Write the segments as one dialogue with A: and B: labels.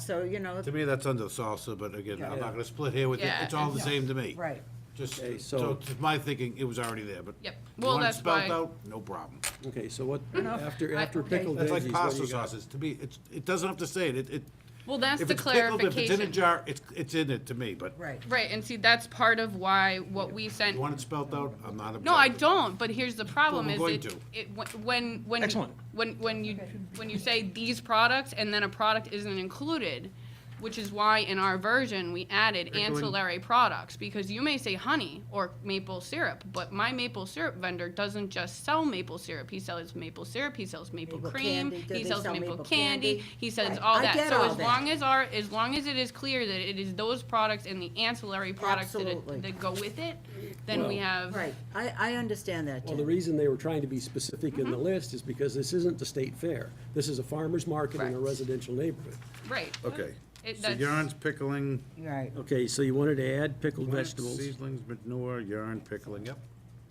A: so, you know,
B: To me, that's under salsa, but again, I'm not gonna split here with you,
C: Yeah.
B: it's all the same to me.
A: right.
B: Just,
D: Okay,
B: so,
D: so-
B: to my thinking, it was already there, but.
C: Yep.
B: You
C: Well,
B: want it
C: that's
B: Spelled
C: why-
B: out, no problem.
D: Okay, so what, after, after
C: okay.
D: pickled veggies,
B: That's
D: what
B: like
D: do you got?
B: pasta sauces, to me, it's, it doesn't have to say it, it, it.
C: Well, that's
B: if
C: the
B: it's pickled, If it's in a
C: clarification.
B: jar, it's, it's in it to me, but.
A: Right.
C: Right, and see, that's part of why what we sent.
B: You want it spelled out, I'm not objecting.
C: No, I don't, but here's the problem
B: we're
C: is
B: going
C: it,
B: to.
C: it, wh- when, when. you-
E: Excellent.
C: When, when you, when you say these products and then a product isn't included, which is why in our version, we added
B: going-
C: ancillary products. Because you may say honey or maple syrup, but my maple syrup vendor doesn't just sell maple syrup. He sells maple syrup, he sells maple
A: Maple
C: cream,
A: candy. Do
C: he
A: they
C: sells
A: sell
C: maple
A: maple
C: candy,
A: candy?
C: he sells
A: Right.
C: all
A: I
C: that.
A: get
C: So
A: all
C: as
A: that.
C: long as our, as long as it is clear that it is those products and the ancillary products that,
A: Absolutely.
C: it- that go with it, then we
D: Well-
C: have.
A: Right, I, I understand that,
D: Well, the
A: Tim.
D: reason they were trying to be specific in the list is because this isn't the state fair. This is a farmer's market in a
C: Correct.
D: residential neighborhood.
C: Right.
B: Okay,
C: It-
B: so
C: that's-
B: yarns, pickling,
A: Right,
D: Okay, so you wanted to add pickled
B: plants,
D: vegetables.
B: seedlings, manure, yarn, pickling, yep.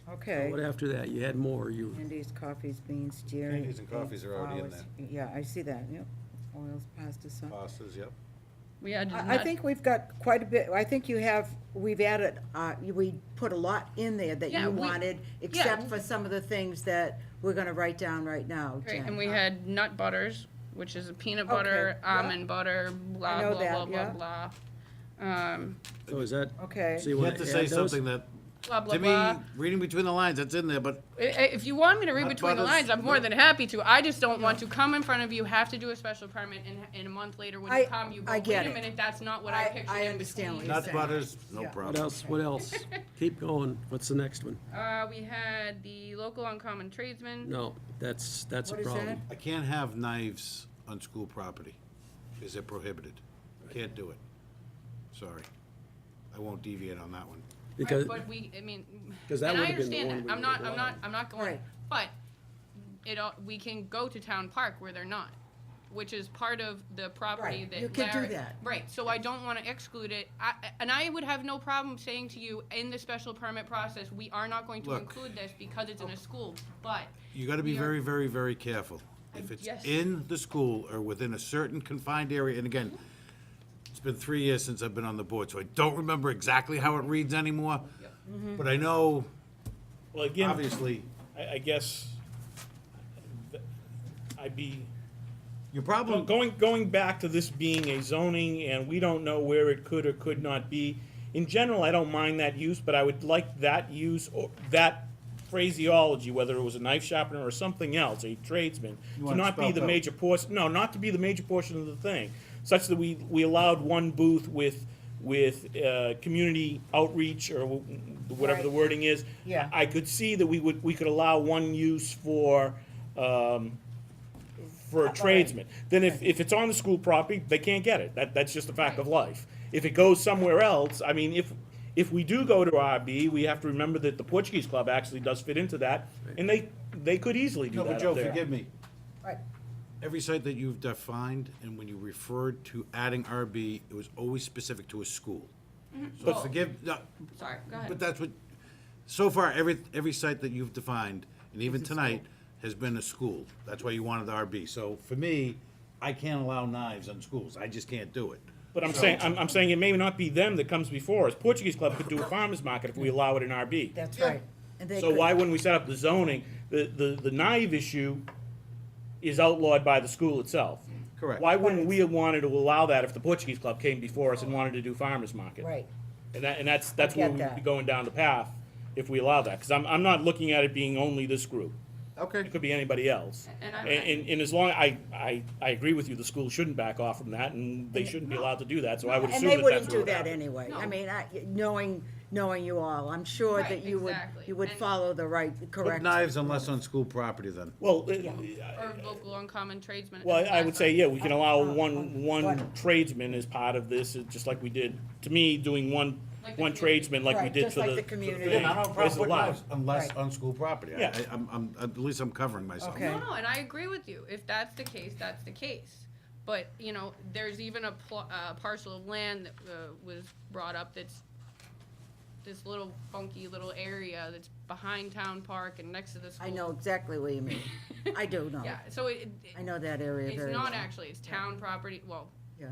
A: okay.
D: What after that? You had more, you,
A: Candies, coffees, beans, dairy.
B: Candies and coffees are already in
A: flowers. Yeah, I see that, yep. Oils, pasta, sauce.
B: Pastas, yep.
C: We
B: Uh,
C: added
A: I I
C: nut-
A: think we've got quite a bit, I think you have, we've added, uh, you- we put a lot in there that
C: Yeah,
A: you
C: we-
A: wanted, except for some of the things that we're gonna write down right now,
C: Right,
A: Jen.
C: and we
D: Uh,
C: had nut butters, which is a peanut
A: Okay,
C: butter,
A: yeah.
C: almond butter, blah,
A: know
C: blah, blah,
A: that,
C: blah, blah. Um,
D: so oh, is that?
A: Okay.
D: So you
B: You
D: want
B: have to say
D: add those?
B: something that,
C: blah, blah,
B: to
C: blah.
B: me, reading between the lines, that's in there, but
C: I- I- If you want me to read
B: Nut
C: between the
B: butters,
C: lines, I'm more than happy to. I just don't want to come in front of you, have to do a special permit, and, and a month later when
A: I-
C: you come, you go,
A: I
C: wait
A: get
C: a
A: it.
C: minute, that's not what
A: I-
C: I
A: I
C: pictured in
A: understand what
C: between.
A: you're
B: nut
A: saying.
B: butters, no
A: Yeah.
D: What
B: problem.
D: else, what else? Keep going. What's the next one?
C: Uh, we had the local uncommon tradesman.
D: No, that's, that's a
A: What is
D: problem.
B: I can't have knives on school property. Is it prohibited? Can't do it. Sorry. I won't deviate on that one.
D: Because,
C: Right, But we, I mean.
D: 'Cause that
C: and I
D: would've been the
C: understand
D: one
C: that.
D: we
C: I'm not,
D: would've
C: I'm
D: allowed.
C: not, I'm not going,
A: Right.
C: but it, all- we can go to town park where they're not, which is part of the property
A: Right,
C: that Larry.
A: you could do that.
C: Right, so I don't wanna exclude it. I, and I would have no problem saying to you, in the special permit process, we are not going to
B: Look.
C: include this because it's in a school, but
B: You gotta be
C: We are-
B: very, very, very careful. If it's
C: yes.
B: in the school or within a certain confined area, and again, it's been three years since I've been on the board, so I don't remember exactly how it reads anymore. But I know,
E: Well, again,
B: obviously,
E: I, I guess th- I'd be,
B: your
E: go-
B: problem,
E: going, going back to this being a zoning and we don't know where it could or could not be. In general, I don't mind that use, but I would like that use or that phraseology, whether it was a knife sharpener or something else, a tradesman, to
B: want it
E: not be
B: spelled
E: the
B: out.
E: major portion, no, not to be the major portion of the thing, such that we, we allowed one booth with, with, uh, community outreach or wh- whatever the
A: Right.
E: wording is.
A: Yeah.
E: I could see that we would, we could allow one use for, um, for a tradesman. Then if, if it's on the school property, they can't get it. That, that's just a fact of life. If it goes somewhere else, I mean, if, if we do go to RB, we have to remember that the Portuguese club actually does fit into that, and they, they could easily do
B: no,
E: that
B: but
E: up
B: Joe,
E: there.
B: forgive me.
A: Right,
B: Every site that you've defined, and when you referred to adding RB, it was always specific to a school.
A: Mm-hmm.
B: So
C: But-
B: forgive, no,
C: sorry, go ahead.
B: but that's what, so far, every, every site that you've defined, and even tonight, has been a school. That's why you wanted the RB. So for me, I can't allow knives on schools. I just can't do it.
E: But I'm saying, I'm, I'm saying it may not be them that comes before us. Portuguese club could do a farmer's market if we allow it in RB.
A: that's right. And they
E: So
A: could-
E: why wouldn't we set up the zoning? The, the, the naive issue is outlawed by the school itself.
B: Correct.
E: Why wouldn't we have wanted to allow that if the Portuguese club came before us and wanted to do farmer's market?
A: Right,
E: And that, and that's, that's where
A: get
E: we'd be
A: that.
E: going down the path if we allow that, cause I'm, I'm not looking at it being only this group.
B: Okay.
E: It could be anybody else.
C: And I'm-
E: And, and, and as long, I, I, I agree with you, the school shouldn't back off from that and they shouldn't be allowed to do that, so I would
A: and
E: assume
A: they
E: that that's
A: wouldn't
E: what
A: do
E: would
A: that
E: happen.
A: anyway. I
C: No.
A: mean, I, knowing, knowing you all, I'm sure
C: Right,
A: that you would,
C: exactly.
A: you would
C: And-
A: follow the right,
B: But
A: correct.
B: knives unless on school property then.
E: Well, uh,
C: Or local uncommon tradesman.
E: well, I would say, yeah, we can allow one, one
A: But-
E: tradesman as part of this, uh, just like we did, to me, doing one,
C: Like the
E: one
C: community.
E: tradesman like we
A: Right,
E: did
A: just
E: for the.
A: like the
E: for
A: community.
E: thing.
A: And I
E: It's allowed.
B: Unless
A: Right.
B: on school property. I-
E: Yeah.
B: I, I'm, I'm, at least I'm covering myself.
A: Okay.
C: No, no, and I agree with you. If that's the case, that's the case. But, you know, there's even a pl- uh, parcel of land that, uh, was brought up that's this little funky little area that's behind town park and next to the school.
A: I know exactly what you mean. I do know.
C: Yeah, so it,
A: I
C: it-
A: know that area
C: it's
A: very well.
C: not actually, it's town property, well,
A: Yeah,